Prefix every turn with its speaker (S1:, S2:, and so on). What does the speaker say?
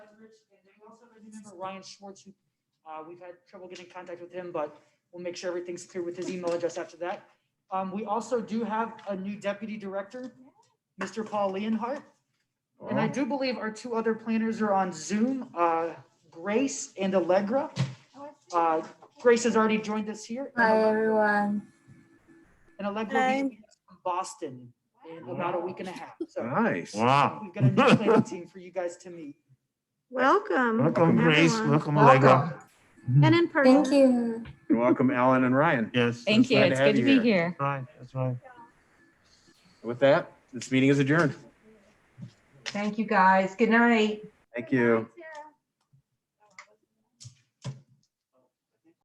S1: records. And then we also have a new member, Ryan Schwartz, who, uh, we've had trouble getting in contact with him, but we'll make sure everything's clear with his email address after that. Um, we also do have a new deputy director, Mr. Paul Leonhardt. And I do believe our two other planners are on Zoom, uh, Grace and Allegra. Uh, Grace has already joined us here.
S2: Hi, everyone.
S1: And Allegra will be joining us from Boston in about a week and a half. So
S3: Nice.
S4: Wow.
S1: we've got a new planning team for you guys to meet.
S5: Welcome.
S4: Welcome, Grace.
S5: everyone.
S4: Welcome, Allegra.
S5: And in
S2: Thank
S5: person.
S2: you.
S3: You're welcome, Alan and Ryan.
S4: Yes.
S6: Thank you.
S3: glad to
S6: It's
S3: have
S6: good to
S3: you
S6: be
S3: here.
S6: here.
S4: Right, that's right.
S3: With that, this meeting is adjourned.
S7: Thank you, guys. Good night.
S3: Thank you.